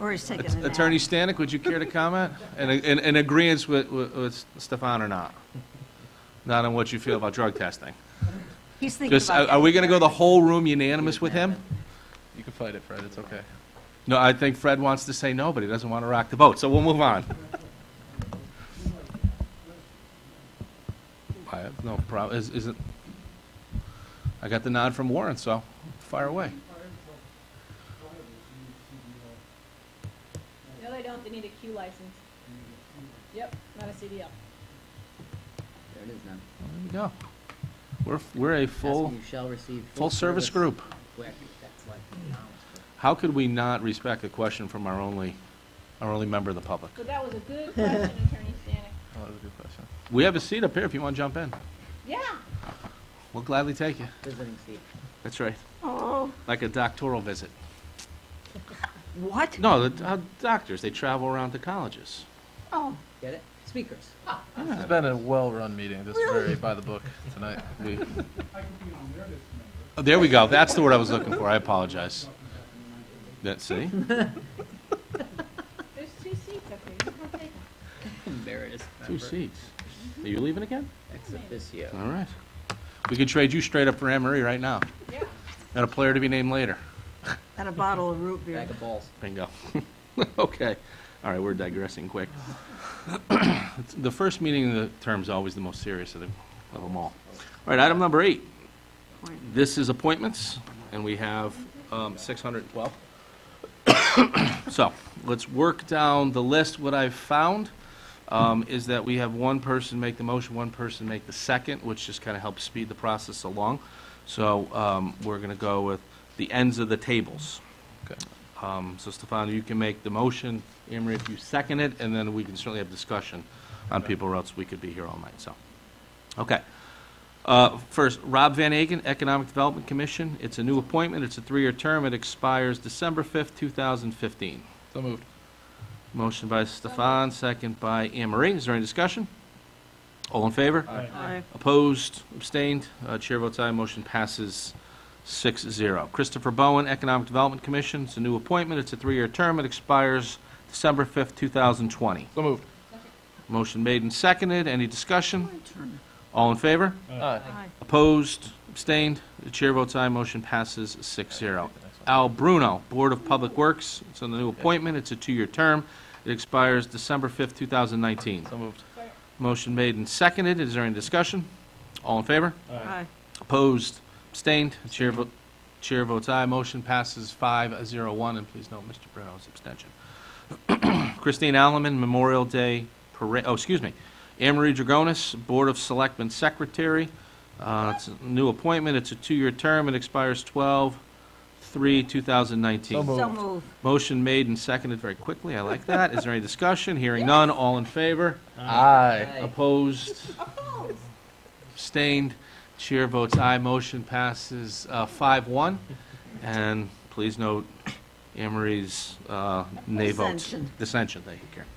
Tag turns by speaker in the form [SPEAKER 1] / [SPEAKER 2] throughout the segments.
[SPEAKER 1] Or he's taking a nap.
[SPEAKER 2] Attorney Stanek, would you care to comment? And, and, and agreeance with, with- with Stefan or not? Not on what you feel about drug testing?
[SPEAKER 1] He's thinking
[SPEAKER 2] Just,
[SPEAKER 1] about
[SPEAKER 2] are
[SPEAKER 1] that.
[SPEAKER 2] are we gonna go the whole room unanimous with him?
[SPEAKER 3] You can fight it, Fred, it's okay.
[SPEAKER 2] No, I think Fred wants to say no, but he doesn't want to rock the boat, so we'll move on. I have no problem, is, is it, I got the nod from Warren, so fire away.
[SPEAKER 4] No, they don't, they need a Q license. Yep, not a CDL.
[SPEAKER 5] There it is now.
[SPEAKER 2] There we go. We're, we're a full,
[SPEAKER 5] Asking you shall receive.
[SPEAKER 2] full-service group.
[SPEAKER 5] Quick, that's like knowledge.
[SPEAKER 2] How could we not respect a question from our only, our only member of the public?
[SPEAKER 4] So that was a good question, Attorney Stanek.
[SPEAKER 3] Oh, That was a good question.
[SPEAKER 2] We have a seat up here if you want to jump in.
[SPEAKER 4] Yeah,
[SPEAKER 2] We'll gladly take you.
[SPEAKER 5] Visiting seat.
[SPEAKER 2] That's right.
[SPEAKER 1] Oh,
[SPEAKER 2] Like a doctoral visit.
[SPEAKER 1] what?
[SPEAKER 2] No, the uh, doctors, they travel around to colleges.
[SPEAKER 1] Oh,
[SPEAKER 5] Get it? Speakers.
[SPEAKER 3] It's been a well-run meeting, just very by the book tonight.
[SPEAKER 2] We- Oh, There we go. That's the word I was looking for. I apologize. That, see?
[SPEAKER 4] there's two seats up here, you can take them.
[SPEAKER 5] There it is.
[SPEAKER 2] Two
[SPEAKER 5] Remember.
[SPEAKER 2] seats. Are you leaving again?
[SPEAKER 5] Ex officio.
[SPEAKER 2] All right. We could trade you straight up for Anne Marie right now.
[SPEAKER 4] Yeah.
[SPEAKER 2] And a player to be named later.
[SPEAKER 1] and a bottle of root beer.
[SPEAKER 5] Bag of balls.
[SPEAKER 2] Bingo. Okay. All right, we're digressing quick. The first meeting of the term is always the most serious of the- of them all. All right, item number eight.
[SPEAKER 1] Appointment.
[SPEAKER 2] This is appointments, and we have um, 612. So, let's work down the list. What I've found um, is that we have one person make the motion, one person make the second, which just kind of helps speed the process along. So, um, we're going to go with the ends of the tables.
[SPEAKER 3] Okay.
[SPEAKER 2] Um, So Stefano, you can make the motion, Emery, if you second it, and then we can certainly have discussion on people, or else we could be here all night, so. Okay. Uh, First, Rob Van Agen, Economic Development Commission. It's a new appointment. It's a three-year term. It expires December 5th, 2015.
[SPEAKER 3] So moved.
[SPEAKER 2] Motion by Stefan, second by Anne Marie. Is there any discussion? All in favor?
[SPEAKER 1] Aye.
[SPEAKER 2] Opposed, abstained, Uh, chair votes aye, motion passes 6-0. Christopher Bowen, Economic Development Commission, it's a new appointment, it's a three-year term, it expires December 5th, 2020.
[SPEAKER 3] So moved.
[SPEAKER 2] Motion made and seconded, any discussion?
[SPEAKER 1] My turn.
[SPEAKER 2] All in favor?
[SPEAKER 3] Aye.
[SPEAKER 1] Aye.
[SPEAKER 2] Opposed, abstained, the chair votes aye, motion passes 6-0. Al Bruno, Board of Public Works, it's a new appointment, it's a two-year term, it expires December 5th, 2019.
[SPEAKER 3] So moved.
[SPEAKER 2] Motion made and seconded, is there any discussion? All in favor?
[SPEAKER 1] Aye.
[SPEAKER 2] Opposed, abstained, chair vote, chair votes aye, motion passes five zero one, and please note Mr. Bruno's abstention. Christine Alleman, Memorial Day Parade, oh, excuse me, Anne Marie Dragonis, Board of Selectmen Secretary, uh, it's a new appointment, it's a two-year term, it expires twelve three two thousand nineteen.
[SPEAKER 3] So moved.
[SPEAKER 1] So move.
[SPEAKER 2] Motion made and seconded very quickly, I like that, is there any discussion? Hearing none, all in favor?
[SPEAKER 1] Uh,
[SPEAKER 3] Aye.
[SPEAKER 2] Opposed? Abstained? Chair votes aye. Motion passes uh, five one. And please note Anne Marie's uh, nay vote.
[SPEAKER 1] Dissension.
[SPEAKER 2] Dissension, thank you, Karen.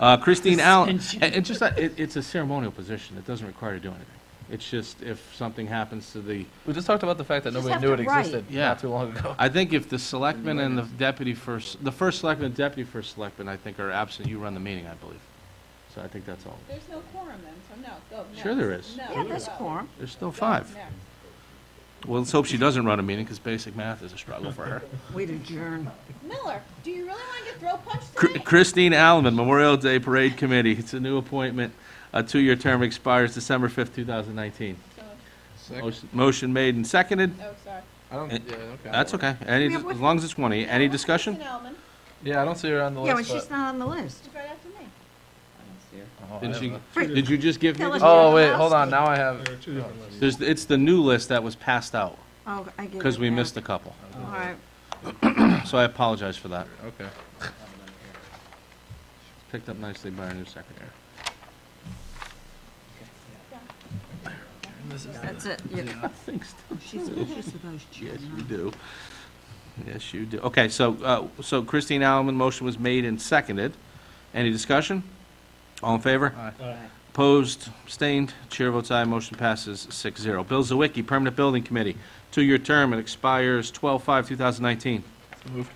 [SPEAKER 2] Uh, Christine Allen, and and just, that- it- it's a ceremonial position. It doesn't require to do anything. It's just if something happens to the,
[SPEAKER 3] We just talked about the fact that
[SPEAKER 1] Just
[SPEAKER 3] nobody
[SPEAKER 1] have
[SPEAKER 3] knew it
[SPEAKER 1] to write.
[SPEAKER 3] existed
[SPEAKER 2] Yeah.
[SPEAKER 3] not too long ago.
[SPEAKER 2] I think if the selectman and the deputy first, the first selectman and deputy first selectman, I think are absent, you run the meeting, I believe. So I think that's all.
[SPEAKER 4] There's no quorum then, so no, go, next.
[SPEAKER 2] Sure there is.
[SPEAKER 4] No,
[SPEAKER 1] Yeah, that's
[SPEAKER 4] go.
[SPEAKER 1] quorum.
[SPEAKER 2] There's still
[SPEAKER 4] Go,
[SPEAKER 2] five.
[SPEAKER 4] next.
[SPEAKER 2] Well, let's hope she doesn't run a meeting, because basic math is a struggle for her.
[SPEAKER 1] We'd adjourn.
[SPEAKER 4] Miller, do you really want to get throw punched
[SPEAKER 2] Chr-
[SPEAKER 4] tonight?
[SPEAKER 2] Christine Alman, Memorial Day Parade Committee. It's a new appointment. A two-year term expires December 5th, 2019.
[SPEAKER 4] So-
[SPEAKER 2] Motion- Motion made and seconded.
[SPEAKER 4] Oh, sorry.
[SPEAKER 3] I don't,
[SPEAKER 2] Eh,
[SPEAKER 3] yeah, okay.
[SPEAKER 2] That's okay. Any, as long as it's 20. Any discussion?
[SPEAKER 4] Kristen Elman,
[SPEAKER 3] Yeah, I don't see her on the
[SPEAKER 1] Yeah, but
[SPEAKER 3] list,
[SPEAKER 1] she's
[SPEAKER 3] but.
[SPEAKER 1] not on the list.
[SPEAKER 4] she's right after me.
[SPEAKER 5] I don't see her.
[SPEAKER 3] Oh, I
[SPEAKER 2] Didn't
[SPEAKER 3] don't
[SPEAKER 2] she-
[SPEAKER 3] know.
[SPEAKER 2] Did you just give me?
[SPEAKER 1] Tell
[SPEAKER 2] this?
[SPEAKER 1] us-
[SPEAKER 3] Oh, wait, hold on, now I have,
[SPEAKER 2] There's, it's the new list that was passed out,
[SPEAKER 1] Oh, I get it.
[SPEAKER 2] because we
[SPEAKER 1] now.
[SPEAKER 2] missed a couple.
[SPEAKER 1] All right.
[SPEAKER 2] So I apologize for that.
[SPEAKER 3] okay.
[SPEAKER 2] Picked up nicely by our new secretary.
[SPEAKER 1] That's it. You-
[SPEAKER 2] Thanks,
[SPEAKER 1] She's vicious with those
[SPEAKER 2] Yes,
[SPEAKER 1] children.
[SPEAKER 2] you do. Yes, you do. Okay, so, uh, so Christine Allen, motion was made and seconded. Any discussion? All in favor?
[SPEAKER 3] Aye.
[SPEAKER 2] Opposed, abstained, chair votes aye, motion passes 6-0. Bill Zawicki, Permanent Building Committee, two-year term, it expires 12/5/2019.
[SPEAKER 3] So moved.